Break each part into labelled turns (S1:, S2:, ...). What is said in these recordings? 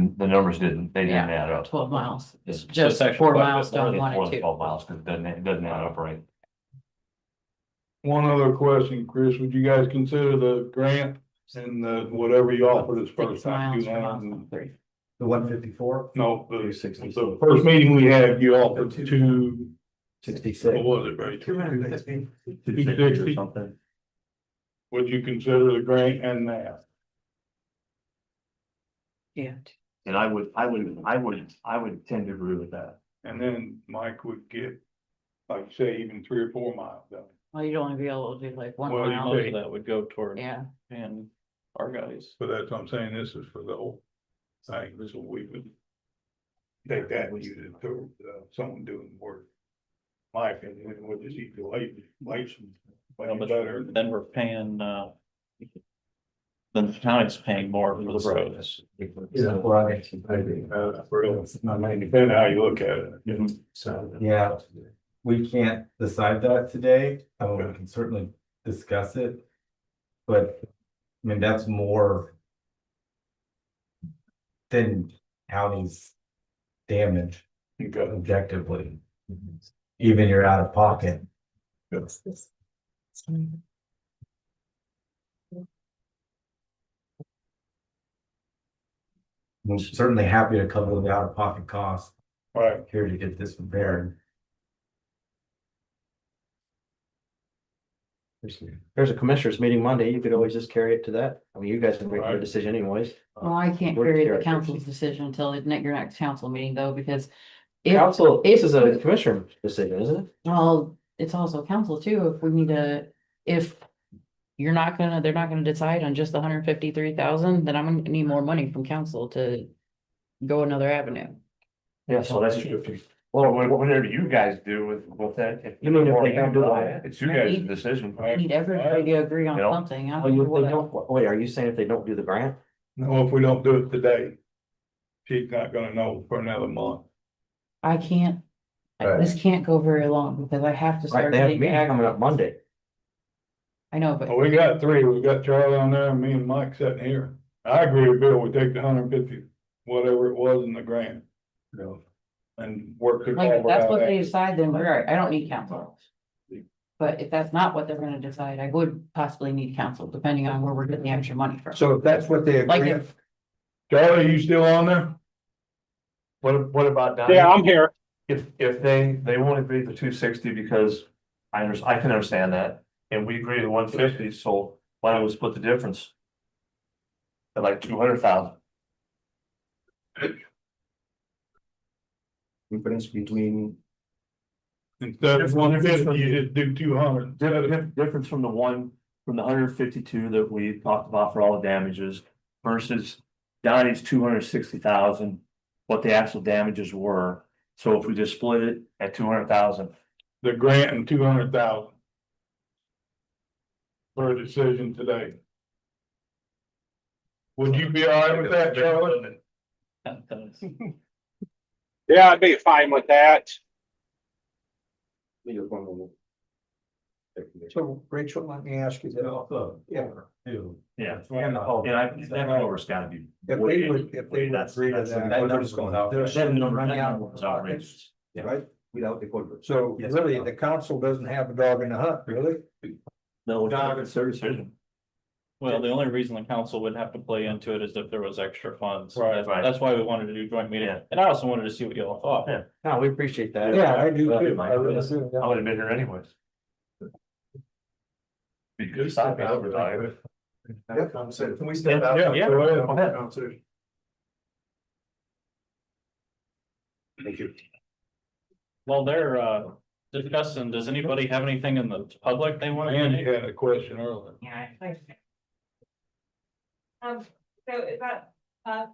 S1: didn't, the numbers didn't, they didn't add up.
S2: twelve miles, it's
S1: So
S2: just
S1: section
S2: four
S1: five,
S2: miles
S1: it's
S2: down one
S1: more
S2: and
S1: than
S2: two.
S1: Twelve miles, because it doesn't, it doesn't add up right.
S3: One other question, Chris, would you guys consider the grant and the whatever you offered us
S2: Six
S3: first time?
S2: miles
S3: you
S2: from
S3: know,
S2: Austin, three.
S4: The one fifty-four,
S3: No, the,
S4: Sixty.
S3: the first meeting we had, you offered two,
S4: sixty-six.
S3: what was it, Barry?
S2: Two hundred and fifty.
S4: or Something.
S3: Would you consider the grant and that?
S2: Yeah.
S1: And I would, I would, I would, I would tend to agree with that.
S3: And then Mike would get, like you say, even three or four miles down.
S2: Well, you'd only be able to do like one
S3: Well, you
S2: mile,
S5: Most of that would go toward
S2: yeah,
S5: and our guys.
S3: But that's what I'm saying, this is for the whole thing, this will we would. Take that, and use it to, uh, someone doing the work. My opinion, what does he feel like, like some,
S5: Well,
S3: like
S5: but
S3: better?
S5: Then we're paying, uh. Then the county's paying more for the roads.
S4: Yeah, right. I agree.
S3: Uh, for real,
S4: It's not many.
S3: depending how you look at it, you know,
S4: So, yeah, we can't decide that today, uh, we can certainly discuss it. But, I mean, that's more. Than county's damage
S3: you got
S4: objectively. Even you're out of pocket. I'm certainly happy to cover the out-of-pocket cost
S3: Right,
S4: here to get this repaired.
S6: There's, there's a commissioners meeting Monday. You could always just carry it to that. I mean, you guys can make your
S3: Right.
S6: decision anyways.
S2: well, I can't
S6: Work
S2: carry the
S6: characters.
S2: council's decision until the next, your next council meeting though, because. If,
S6: Council, this is a commissioner decision, isn't it?
S2: well, it's also council too, if we need to, if. You're not gonna, they're not gonna decide on just the hundred and fifty-three thousand, then I'm gonna need more money from council to. Go another avenue.
S1: Yeah, so that's true. Well, wha- whatever you guys do with, with that. if-
S6: You mean if they don't do
S1: Or-
S6: it?
S1: It's you guys' decision.
S2: I need everybody to agree on
S1: You know,
S2: something. I
S6: Oh,
S2: don't
S6: you,
S2: know
S6: they
S2: what-
S6: don't, wait, are you saying if they don't do the grant?
S3: no, if we don't do it today. She's not gonna know for another month.
S2: I can't,
S4: Right.
S2: this can't go very long because I have
S6: Right,
S2: to start.
S6: they have a
S2: getting
S6: meeting
S2: back-
S6: coming up Monday.
S2: I know, but
S4: Oh,
S3: Well, we got three, we got Charlie on there, and me and Mike sitting here. I agree with Bill, we take the hundred fifty, whatever it was in the grant. You know, and work. the
S2: Like, if
S3: culvert
S2: that's
S3: out
S2: what
S3: there.
S2: they decide, then we're, all right. I don't need council. But if that's not what they're gonna decide, I would possibly need council, depending on where we're getting the extra money from.
S4: So if that's what they
S2: Like
S4: agree,
S2: if-
S3: Charlie, you still on there?
S1: What, what about Donnie?
S7: Yeah, I'm here.
S1: If, if they, they won't agree to two sixty because I under, I can understand that, and we agree to one fifty, so why don't we split the difference? At like two hundred thousand,
S6: Difference between.
S3: Instead of one fifty, you just do two hundred.
S1: Dif- dif- difference from the one, from the hundred fifty-two that we talked about for all the damages versus Donnie's two hundred sixty thousand, what the actual damages were. So if we just split it at two hundred thousand,
S3: The grant and two hundred thousand. For a decision today. Would you be all right with that, Charlie?
S7: Yeah, I'd be fine with that.
S4: so Rachel, let me ask you that. Yeah. Too.
S1: yeah,
S4: And the whole-
S1: and I, that number's gotta be.
S4: If they would, if they would
S1: That's-
S4: agree to
S1: that's-
S4: that.
S1: That number's going out.
S4: They're
S1: That
S4: sending them
S1: number,
S4: running
S1: that
S4: out.
S1: number
S4: of
S1: was outrageous. Yeah.
S4: Right?
S6: Without the corporate.
S4: So
S6: Yes.
S4: really, the council doesn't have a dog in the hunt, really?
S1: No, it's their decision.
S5: Well, the only reason the council would have to play into it is if there was extra funds.
S3: Right,
S5: That's-
S1: right.
S5: That's why we wanted to do joint meeting.
S1: Yeah.
S5: And I also wanted to see what y'all thought.
S1: Yeah.
S6: No, we appreciate that.
S4: Yeah, I do
S1: Well,
S4: too. I really
S1: yes.
S4: do.
S1: I
S4: yeah.
S1: would have been here anyways. Because I'd be overdrive.
S4: Can we
S1: Yeah,
S4: out?
S1: yeah, go ahead, go ahead.
S5: While they're, uh, discussing, does anybody have anything in the public they want to?
S3: Andy had a question earlier.
S8: Yeah. I- Um, so is that, uh,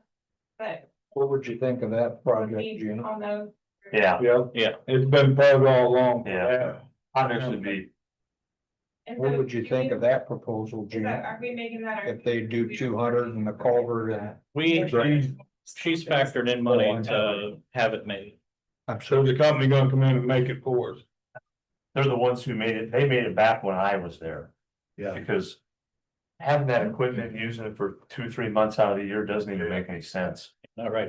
S8: that
S4: What would you think of that project,
S8: we
S4: Gina?
S8: all know?
S1: Yeah,
S3: Yeah.
S5: Yeah.
S3: It's been paid all along.
S1: Yeah. I'd actually be,
S8: and
S4: What
S8: so
S4: would you
S8: do
S4: think
S8: we-
S4: of that proposal,
S8: is that-
S4: Gina?
S8: Are we making that? our-
S4: If they do two hundred and the culvert and,
S5: We, she's factored in money to have it made.
S4: I'm
S3: So
S4: sure,
S3: the company gonna come in and make it for us.
S1: they're the ones who made it, they made it back when I was there.
S4: Yeah.
S1: Because having that equipment, using it for two, three months out of the year doesn't even make any sense.
S5: All right.